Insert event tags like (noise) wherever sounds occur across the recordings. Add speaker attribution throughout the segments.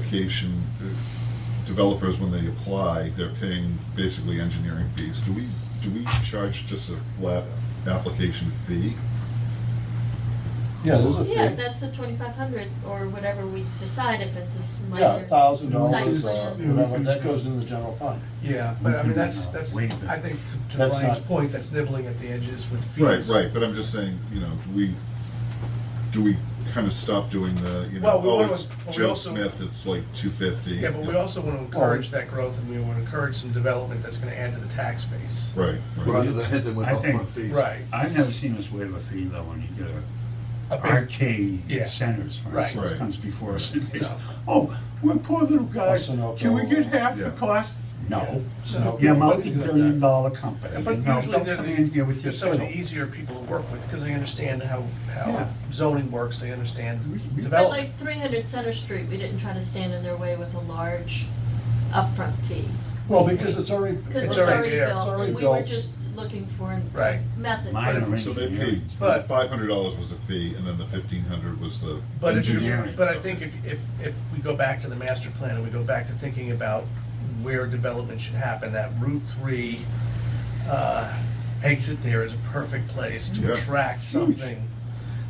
Speaker 1: application, uh, developers, when they apply, they're paying basically engineering fees. Do we, do we charge just a flat application fee?
Speaker 2: Yeah, there's a
Speaker 3: Yeah,
Speaker 2: fee.
Speaker 3: that's the twenty-five hundred or whatever we decide if it's a s- minor.
Speaker 2: Yeah,
Speaker 4: uh,
Speaker 2: thousand
Speaker 3: Site
Speaker 2: dollars, uh,
Speaker 3: plan.
Speaker 2: whatever, that goes in the general fund.
Speaker 4: Yeah,
Speaker 5: We
Speaker 4: but I
Speaker 5: can,
Speaker 4: mean, that's,
Speaker 5: uh,
Speaker 4: that's,
Speaker 5: waive it.
Speaker 4: I think to- to
Speaker 2: That's
Speaker 4: Ryan's
Speaker 2: not-
Speaker 4: point, that's nibbling at the edges with
Speaker 1: Right,
Speaker 4: fees.
Speaker 1: right, but I'm just saying, you know, do we, do we kind of stop doing the, you know,
Speaker 4: Well, we
Speaker 1: oh,
Speaker 4: wanna-
Speaker 1: it's
Speaker 4: but we
Speaker 1: Joe
Speaker 4: also-
Speaker 1: Smith, it's like two fifty?
Speaker 4: Yeah, but we also want to encourage that growth and we want to encourage some development that's going to add to the tax base.
Speaker 1: Right, right.
Speaker 6: Rather than hit them with
Speaker 5: I think-
Speaker 6: upfront fees.
Speaker 4: Right.
Speaker 5: I've never seen us waive a fee though when you get a
Speaker 4: A big- Yeah.
Speaker 5: arcade centers, for
Speaker 4: Right.
Speaker 5: instance,
Speaker 1: Right.
Speaker 5: comes before us and they say,
Speaker 4: No.
Speaker 5: oh, we're poor little guys,
Speaker 2: Sunoco.
Speaker 5: can we get half
Speaker 1: Yeah.
Speaker 5: the cost? No,
Speaker 4: So-
Speaker 5: you're a
Speaker 2: What do you do with
Speaker 5: multi-billion
Speaker 2: that?
Speaker 5: dollar company,
Speaker 4: But
Speaker 5: you know,
Speaker 4: usually
Speaker 5: don't
Speaker 4: they're,
Speaker 5: come in here with
Speaker 4: the- they're
Speaker 5: your
Speaker 4: some of the
Speaker 5: fiddle.
Speaker 4: easier people to work with because they understand how,
Speaker 5: Yeah.
Speaker 4: how zoning works, they understand
Speaker 5: We- we-
Speaker 3: But
Speaker 4: development.
Speaker 3: like three hundred Center Street, we didn't try to stand in their way with a large upfront fee.
Speaker 2: (laughs) Well, because it's already,
Speaker 3: Because
Speaker 4: It's
Speaker 3: it's
Speaker 4: already
Speaker 3: already
Speaker 4: there. It's
Speaker 3: built,
Speaker 2: already
Speaker 3: and we were
Speaker 2: built.
Speaker 3: just looking for
Speaker 4: Right.
Speaker 3: methods.
Speaker 5: Minor
Speaker 1: So they paid,
Speaker 5: engineering.
Speaker 4: But-
Speaker 1: five hundred dollars was the fee, and then the fifteen hundred was the
Speaker 4: But if you,
Speaker 5: Engineering.
Speaker 4: but I think if, if, if we go back to the master plan and we go back to thinking about where development should happen, that Route Three, uh, exit there is a perfect place
Speaker 1: Yeah.
Speaker 4: to attract something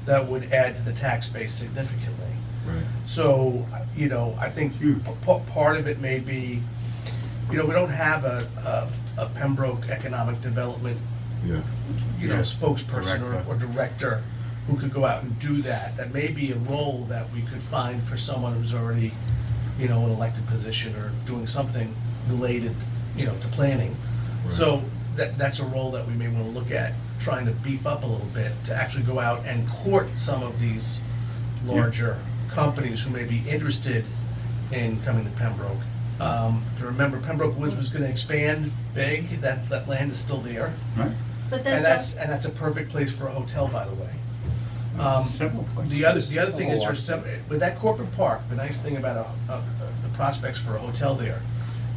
Speaker 4: that would add to the tax base significantly.
Speaker 1: Right.
Speaker 4: So, you know, I think
Speaker 5: Huge.
Speaker 4: p- p- part of it may be, you know, we don't have a, a a Pembroke Economic Development
Speaker 1: Yeah,
Speaker 4: you know,
Speaker 5: Yeah,
Speaker 4: spokesperson or,
Speaker 5: director.
Speaker 4: or director who could go out and do that. That may be a role that we could find for someone who's already, you know, an elected position or doing something related, you know, to planning.
Speaker 1: Right.
Speaker 4: So that, that's a role that we may wanna look at, trying to beef up a little bit, to actually go out and court some of these larger companies who may be interested in coming to Pembroke. Um, if you remember, Pembroke Woods was gonna expand big, that, that land is still there.
Speaker 5: Right,
Speaker 3: But
Speaker 4: And
Speaker 3: that's
Speaker 4: that's,
Speaker 3: not,
Speaker 4: and that's a perfect place for a hotel, by the way. Um,
Speaker 5: several places.
Speaker 4: The other, the other thing
Speaker 1: Oh,
Speaker 4: is, there's some, with that corporate park, the nice thing about a, a, the prospects for a hotel there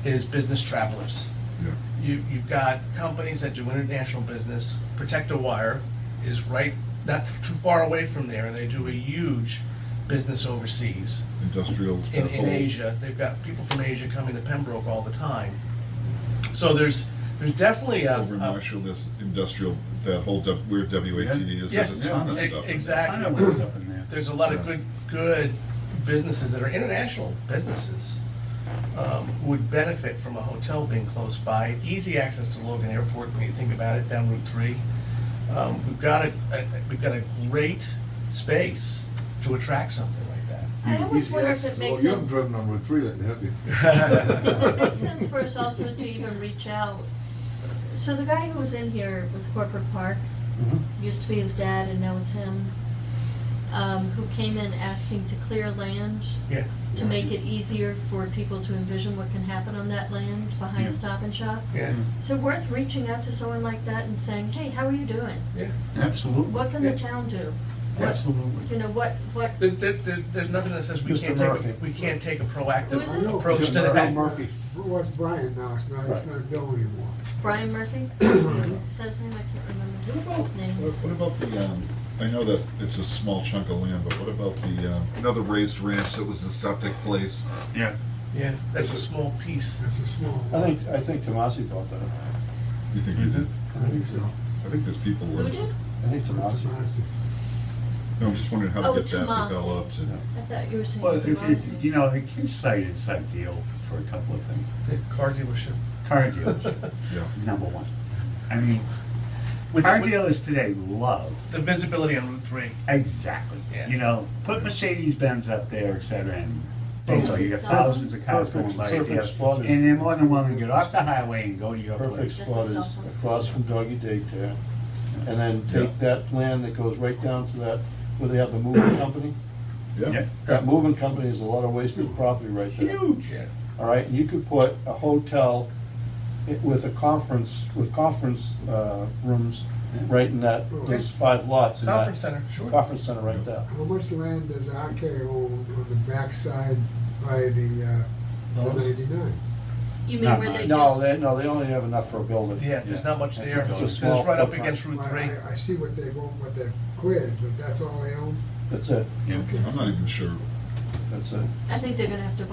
Speaker 4: is business travelers.
Speaker 1: yeah.
Speaker 4: You, you've got companies that do international business, Protector Wire is right, not too far away from there, and they do a huge business overseas
Speaker 1: Industrial.
Speaker 4: in,
Speaker 1: that whole-
Speaker 4: in Asia. They've got people from Asia coming to Pembroke all the time. So there's, there's definitely a.
Speaker 1: Over in
Speaker 5: Um,
Speaker 4: a-
Speaker 1: Marshall, this industrial, that whole W- where WATD is, there's a
Speaker 5: Yeah,
Speaker 1: ton of
Speaker 5: yeah,
Speaker 1: stuff. in there.
Speaker 4: Exactly.
Speaker 5: I know what's up in there.
Speaker 4: there's a lot of good, good businesses that are international businesses um, who would benefit from a hotel being close by. Easy access to Logan Airport when you think about it, down Route Three. Um, We've got a, a- we've got a great space to attract something like that.
Speaker 3: I always
Speaker 6: Easy
Speaker 3: wonder if
Speaker 6: access.
Speaker 3: it makes
Speaker 6: Well, you haven't
Speaker 3: sense,
Speaker 6: driven on Route Three lately, have you?
Speaker 3: (laughs) does it make sense for
Speaker 6: (laughs)
Speaker 3: us also to even reach out? So the guy who was in here with Corporate Park,
Speaker 6: Mm-hmm.
Speaker 2: Mhm.
Speaker 3: used to be his dad and now it's him, um, who came in asking to clear land
Speaker 4: Yeah.
Speaker 3: to make it easier for people to envision what can happen on that land
Speaker 5: Yeah.
Speaker 3: behind Stop and Shop.
Speaker 4: Yeah,
Speaker 2: Hmm.
Speaker 3: So worth reaching out to someone like that and saying, hey, how are you doing?
Speaker 4: yeah.
Speaker 5: Absolutely,
Speaker 3: What can the
Speaker 4: Yeah.
Speaker 3: town do? What-
Speaker 5: absolutely.
Speaker 3: You know, what, what,
Speaker 4: There, there- there's, there's nothing that says we
Speaker 2: Mr.
Speaker 4: can't take,
Speaker 2: Murphy.
Speaker 4: a- we can't take a proactive
Speaker 3: Who is it?
Speaker 4: approach to
Speaker 2: Mr.
Speaker 4: that.
Speaker 2: Murphy.
Speaker 7: Well, it's Brian now, it's not, it's
Speaker 2: Right.
Speaker 7: not Bill anymore.
Speaker 3: Brian
Speaker 5: (coughs)
Speaker 3: Murphy? Is that his name? I can't remember
Speaker 1: What about,
Speaker 3: his name.
Speaker 1: what about the, um, I know that it's a small chunk of land, but what about the, um, another raised ranch that was the septic place?
Speaker 5: Yeah,
Speaker 4: Yeah, that's a small piece.
Speaker 7: That's a small
Speaker 2: I
Speaker 7: one.
Speaker 2: think, I think Tomasi bought that.
Speaker 1: You think you
Speaker 5: Mm-hmm.
Speaker 1: did?
Speaker 7: I think so.
Speaker 1: I think there's people who.
Speaker 3: Who did?
Speaker 2: I think Tomasi.
Speaker 7: Honestly.
Speaker 1: No, I'm just wondering how to
Speaker 3: Oh,
Speaker 1: get that
Speaker 3: Tomasi.
Speaker 1: developed and.
Speaker 3: I thought you were saying.
Speaker 5: well, if,
Speaker 3: Tomasi.
Speaker 5: if, you know, the kids site is ideal for a couple of things.
Speaker 4: The
Speaker 2: (laughs)
Speaker 4: car dealership.
Speaker 5: Car dealers,
Speaker 1: Yeah.
Speaker 5: number one. I mean,
Speaker 4: With-
Speaker 5: car
Speaker 4: with-
Speaker 5: dealers today love,
Speaker 4: The visibility on Route Three.
Speaker 5: exactly,
Speaker 4: Yeah.
Speaker 5: you know, put Mercedes-Benz up there, et cetera, and boom,
Speaker 2: Perfect
Speaker 5: you got thousands of cars going
Speaker 2: perfect-
Speaker 5: by
Speaker 2: perfect
Speaker 5: there.
Speaker 2: spot is-
Speaker 5: And they're more than willing to get off the highway and go to your
Speaker 2: Perfect
Speaker 5: place.
Speaker 2: spot
Speaker 3: That's a
Speaker 2: is
Speaker 3: cell phone.
Speaker 2: across from Doggy Daycare. And then take that land that goes right down to that, where they have the moving company.
Speaker 1: Yeah.
Speaker 5: Yeah.
Speaker 2: That moving company is a lot of wasted property right there.
Speaker 5: Huge.
Speaker 4: Yeah.
Speaker 2: All right, and you could put a hotel i- with a conference, with conference uh, rooms right in that, those five lots in that.
Speaker 4: Conference center, sure.
Speaker 2: Conference center right there.
Speaker 7: How much land does RK own on the backside by the, uh, the
Speaker 4: Those?
Speaker 7: ninety-nine?
Speaker 3: You mean
Speaker 5: No,
Speaker 3: where they
Speaker 2: No,
Speaker 3: just,
Speaker 2: they, no, they only have enough for a building.
Speaker 4: Yeah, there's not much there.
Speaker 2: It's a
Speaker 4: It's
Speaker 2: small
Speaker 4: right up
Speaker 2: footprint.
Speaker 4: against Route
Speaker 7: Well,
Speaker 4: Three.
Speaker 7: I, I see what they've owned, what they've cleared, but that's all they own?
Speaker 2: That's it,
Speaker 5: Yeah.
Speaker 1: I'm not even sure
Speaker 2: that's it.
Speaker 3: I think they're gonna have to